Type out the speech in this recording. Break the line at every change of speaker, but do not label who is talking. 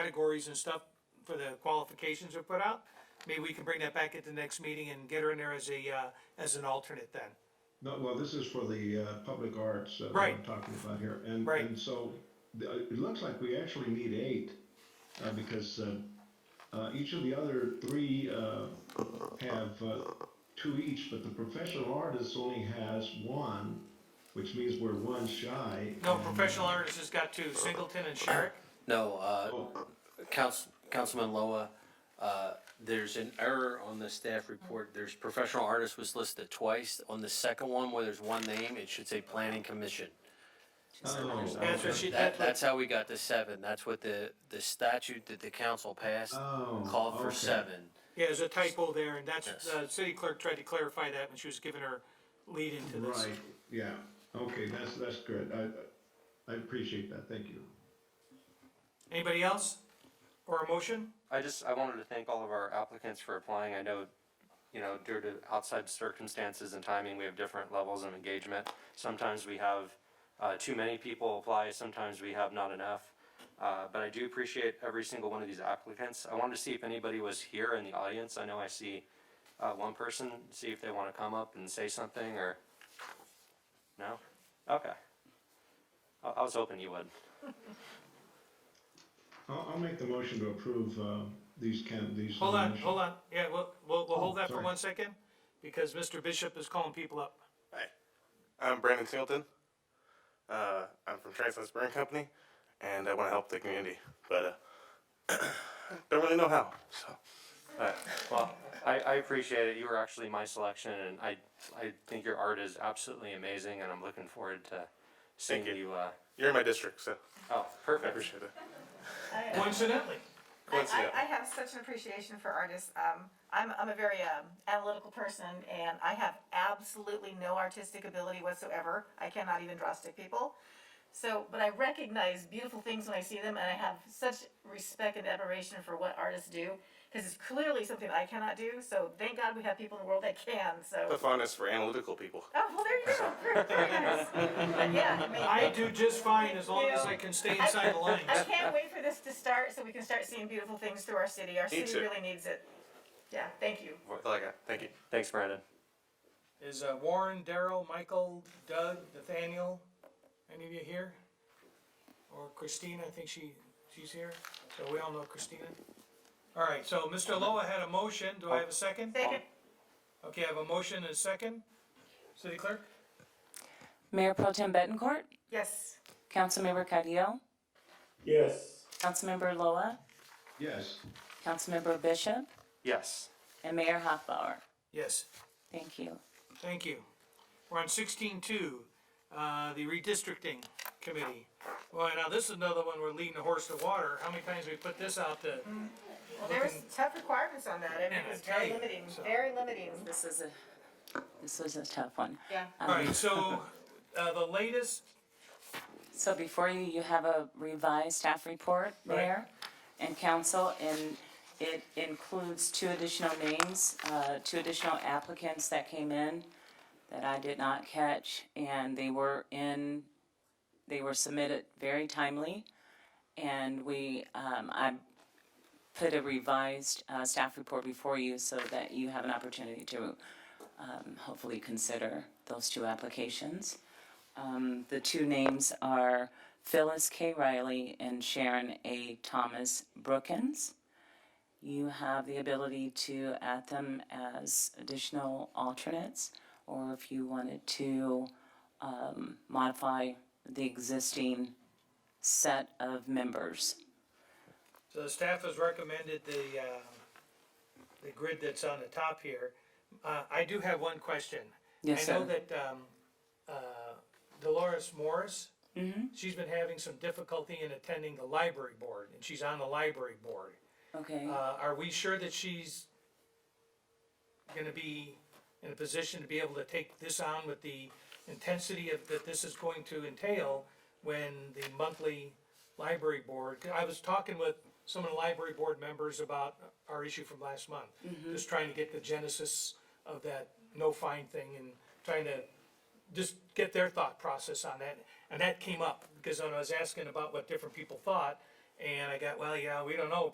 categories and stuff for the qualifications are put out, maybe we can bring that back at the next meeting and get her in there as a, uh, as an alternate then.
No, well, this is for the uh, public arts uh, that I'm
Right.
talking about here. And,
Right.
and so th- uh, it looks like we actually need eight uh, because uh, uh, each of the other three uh, have uh, two each, but the professional artist only has one, which means we're one shy.
No,
and-
professional artists has got two, Singleton and Sherrick.
No, uh,
Oh,
Council, Councilman Loa, uh, there's an error on the staff report. There's professional artist was listed twice. On the second one, where there's one name, it should say planning commission.
oh,
That's what
okay.
she,
That,
that's what-
that's how we got to seven. That's what the, the statute that the council passed
Oh,
called for
okay.
seven.
yeah, there's a typo there, and that's,
Yes.
the city clerk tried to clarify that when she was giving her lead into this.
Right, yeah. Okay, that's, that's good. I, I appreciate that. Thank you.
Anybody else? Or a motion?
I just, I wanted to thank all of our applicants for applying. I know, you know, due to outside circumstances and timing, we have different levels of engagement. Sometimes we have, uh, too many people apply, sometimes we have not enough. Uh, but I do appreciate every single one of these applicants. I wanted to see if anybody was here in the audience. I know I see, uh, one person, see if they wanna come up and say something or, no? Okay. I, I was hoping you would.
I'll, I'll make the motion to approve uh, these can, these.
Hold on,
nominations.
hold on, yeah, we'll, we'll, we'll hold
Oh,
that for
sorry.
one second, because Mr. Bishop is calling people up.
Hi, I'm Brandon Singleton. Uh, I'm from Transland Brewing Company, and I want to help the community, but uh, don't really know how. So,
Alright, well, I, I appreciate it. You were actually my selection and I, I think your art is absolutely amazing and I'm looking forward to seeing
you.
you, uh,
you're in my district, so
oh,
I
perfect.
appreciate it.
I,
Coincidentally,
I,
Coincidentally.
I have such an appreciation for artists. Um, I'm, I'm a very um, analytical person and I have absolutely no artistic ability whatsoever. I cannot even draw stick people. So, but I recognize beautiful things when I see them and I have such respect and admiration for what artists do because it's clearly something I cannot do. So thank God we have people in the world that can.
The
So,
fondness for analytical people.
oh, well, there you go. Very, very nice. But yeah, I mean,
I do just fine as long as I can stay inside the lines.
I can't wait for this to start so we can start seeing beautiful things through our city. Our city
too.
really needs it. Yeah, thank you.
That's all I got. Thank you.
Thanks, Brandon.
Is uh, Warren, Daryl, Michael, Doug, Nathaniel, any of you here? Or Christina, I think she, she's here, so we all know Christina. All right, so Mr. Loa had a motion, do I have a second?
Second,
Okay, I have a motion and a second. City Clerk?
Mayor Pro Tem Betancourt,
yes.
Councilmember Cadiel,
yes.
Councilmember Loa,
Yes.
Councilmember Bishop,
Yes.
and Mayor Hoffbauer.
Yes.
Thank you.
Thank you. We're on sixteen two, uh, the redistricting committee. Well, now this is another one we're leading the horse to water. How many times we put this out to,
Well, there was tough requirements on that. I mean,
Yeah,
it was
I tell
very
you,
limiting,
so.
very limiting.
This is a, this was a tough one.
Yeah.
alright, so, uh, the latest,
So before you, you have a revised staff report, Mayor and Council, and it includes two additional names, uh, two additional applicants that came in that I did not catch, and they were in, they were submitted very timely. And we, um, I put a revised, uh, staff report before you so that you have an opportunity to, um, hopefully consider those two applications. Um, the two names are Phyllis K. Riley and Sharon A. Thomas Brookins. You have the ability to add them as additional alternates, or if you wanted to um, modify the existing set of members.
so the staff has recommended the, uh, the grid that's on the top here. Uh, I do have one question.
Yes,
I know
sir.
that, um, uh, Dolores Morris,
Mm-hmm.
she's been having some difficulty in attending the library board, and she's on the library board.
Okay.
Uh, are we sure that she's gonna be in a position to be able to take this on with the intensity of, that this is going to entail when the monthly library board, I was talking with some of the library board members about our issue from last month. Just trying to get the genesis of that no fine thing and trying to just get their thought process on that. And that came up, because when I was asking about what different people thought, And I got, well, yeah, we don't know,